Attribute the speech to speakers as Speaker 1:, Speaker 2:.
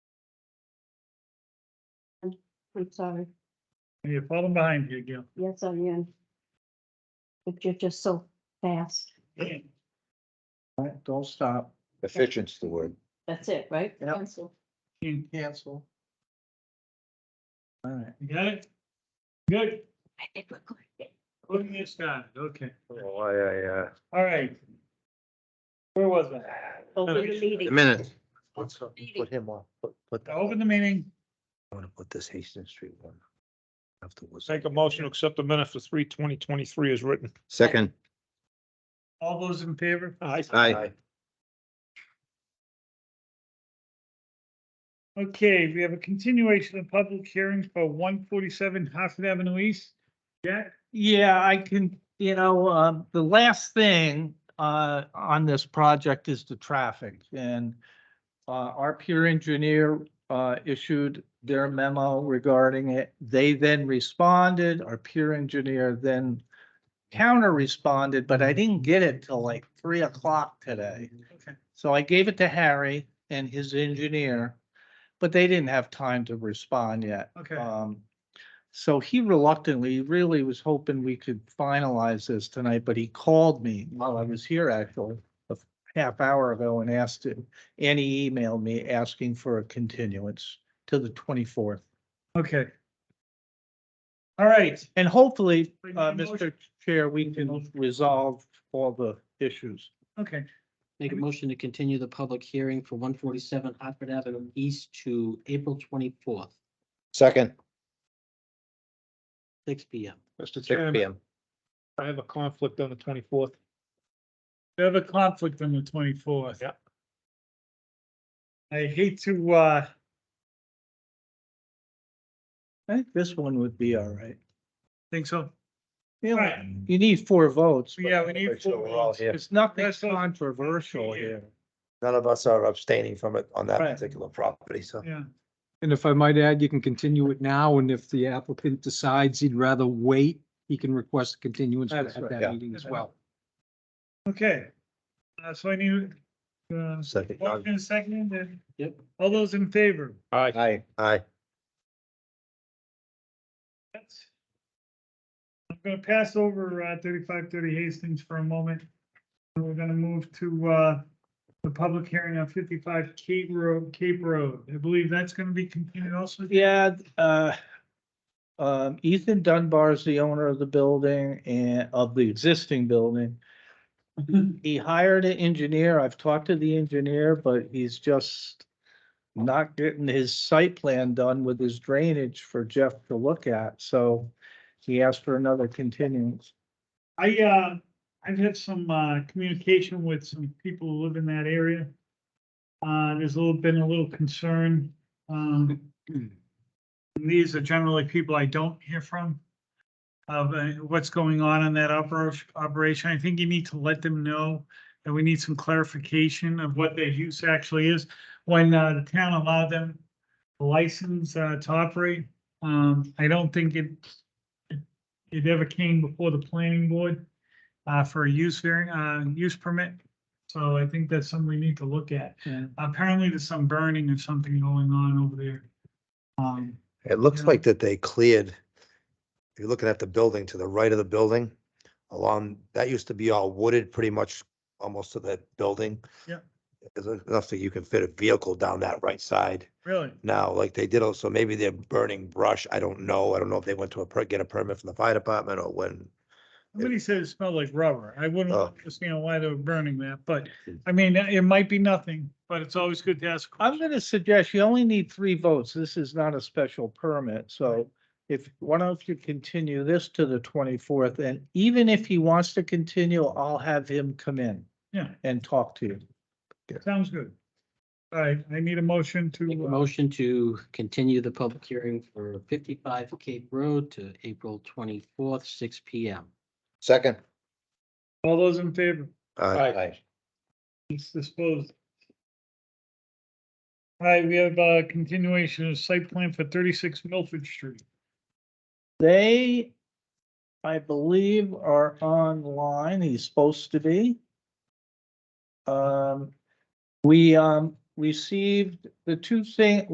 Speaker 1: I'm sorry.
Speaker 2: You're falling behind you again.
Speaker 1: Yes, I am. But you're just so fast.
Speaker 3: All right, don't stop.
Speaker 4: Efficient's the word.
Speaker 1: That's it, right?
Speaker 3: Yep.
Speaker 1: Pencil.
Speaker 2: You
Speaker 3: Cancel. All right,
Speaker 2: got it? Good,
Speaker 1: I think we're good.
Speaker 2: look at this guy, okay,
Speaker 4: Oh, I, I, uh,
Speaker 2: all right. Where was I?
Speaker 1: Open the
Speaker 4: a
Speaker 1: meeting.
Speaker 4: minute.
Speaker 1: Meeting.
Speaker 4: Put him on, put, put,
Speaker 2: To
Speaker 4: I
Speaker 2: Open the meeting,
Speaker 4: want to put this Hastings Street one. Afterwards.
Speaker 5: Make a motion to accept the minute for three twenty twenty-three as written.
Speaker 4: Second.
Speaker 2: all those in favor?
Speaker 6: Uh,
Speaker 5: Aye.
Speaker 4: Aye.
Speaker 2: Okay, we have a continuation of public hearing for one forty-seven Hartford Avenue East. Jack,
Speaker 6: Yeah, I can, you know, um, the last thing, uh, on this project is the traffic and. Uh, our peer engineer, uh, issued their memo regarding it. They then responded, our peer engineer then. Counter responded, but I didn't get it till like three o'clock today.
Speaker 2: Okay.
Speaker 6: So I gave it to Harry and his engineer, but they didn't have time to respond yet.
Speaker 2: okay,
Speaker 6: Um, so he reluctantly, really was hoping we could finalize this tonight, but he called me while I was here actually a half hour ago and asked it, and he emailed me asking for a continuance to the twenty-fourth.
Speaker 2: okay. All right,
Speaker 6: And hopefully,
Speaker 2: We need
Speaker 6: uh,
Speaker 2: a motion.
Speaker 6: Mr. Chair, we can resolve all the issues.
Speaker 2: okay,
Speaker 7: Make a motion to continue the public hearing for one forty-seven Hartford Avenue East to April twenty-fourth,
Speaker 4: Second,
Speaker 7: six P M.
Speaker 5: Mr.
Speaker 4: six P
Speaker 5: Chairman,
Speaker 4: M.
Speaker 5: I have a conflict on the twenty-fourth.
Speaker 2: we have a conflict on the twenty-fourth.
Speaker 5: Yeah.
Speaker 2: I hate to, uh,
Speaker 6: I think this one would be all right.
Speaker 2: think so.
Speaker 6: You know,
Speaker 2: Right.
Speaker 6: You need four votes. but
Speaker 2: Yeah, we need
Speaker 4: So
Speaker 2: four
Speaker 4: we're all
Speaker 2: votes.
Speaker 4: here.
Speaker 6: It's nothing
Speaker 2: That's what-
Speaker 6: controversial
Speaker 2: Yeah.
Speaker 6: here.
Speaker 4: None of us are abstaining from it on that
Speaker 6: Right.
Speaker 4: particular property, so.
Speaker 2: Yeah,
Speaker 8: And if I might add, you can continue it now, and if the applicant decides he'd rather wait, he can request a continuance at
Speaker 6: That's right.
Speaker 4: Yeah.
Speaker 8: that meeting as well.
Speaker 2: okay. Uh, so I need, uh,
Speaker 4: Second.
Speaker 2: motion and second, and
Speaker 7: Yep.
Speaker 2: all those in favor?
Speaker 5: Aye.
Speaker 4: Aye. Aye.
Speaker 2: Yes. I'm gonna pass over uh thirty-five thirty Hastings for a moment. And We're gonna move to uh the public hearing on fifty-five Cape Road, Cape Road. I believe that's gonna be continued also.
Speaker 6: Yeah, uh, um, Ethan Dunbar is the owner of the building and of the existing building. He hired an engineer. I've talked to the engineer, but he's just not getting his site plan done with his drainage for Jeff to look at, so he asked for another continuance.
Speaker 2: I, uh, I've had some, uh, communication with some people who live in that area. Uh, there's a little, been a little concern, um. These are generally people I don't hear from. Of uh, what's going on in that operation, operation. I think you need to let them know. And we need some clarification of what their use actually is. When, uh, the town allowed them a license, uh, to operate, um, I don't think it it ever came before the planning board uh, for a use variant, uh, use permit. So I think that's something we need to look at. Apparently there's some burning or something going on over there. Um,
Speaker 4: It looks
Speaker 2: Yeah.
Speaker 4: like that they cleared, if you're looking at the building to the right of the building, along, that used to be all wooded, pretty much almost to that building.
Speaker 2: Yeah.
Speaker 4: There's enough that you can fit a vehicle down that right side
Speaker 2: really?
Speaker 4: now, like they did also, maybe they're burning brush, I don't know, I don't know if they went to a, per- get a permit from the fire department or when.
Speaker 2: Somebody said it smelled like rubber. I wouldn't
Speaker 4: Oh.
Speaker 2: understand why they were burning that, but I mean, it might be nothing, but it's always good to ask. a
Speaker 6: I'm
Speaker 2: question.
Speaker 6: gonna suggest you only need three votes. This is not a special permit, so if, why don't you continue this to the twenty-fourth? And even if he wants to continue, I'll have him come in
Speaker 2: Yeah,
Speaker 6: and talk to you.
Speaker 2: sounds good. All right, I need a motion
Speaker 7: Make a
Speaker 2: to, uh,
Speaker 7: motion to continue the public hearing for fifty-five Cape Road to April twenty-fourth, six P M.
Speaker 4: Second.
Speaker 2: all those in favor?
Speaker 4: Aye. Aye.
Speaker 2: It's disposed. All right, we have a continuation of site plan for thirty-six Milford Street.
Speaker 6: They, I believe, are online. He's supposed to be. Um, we, um, received the two thing,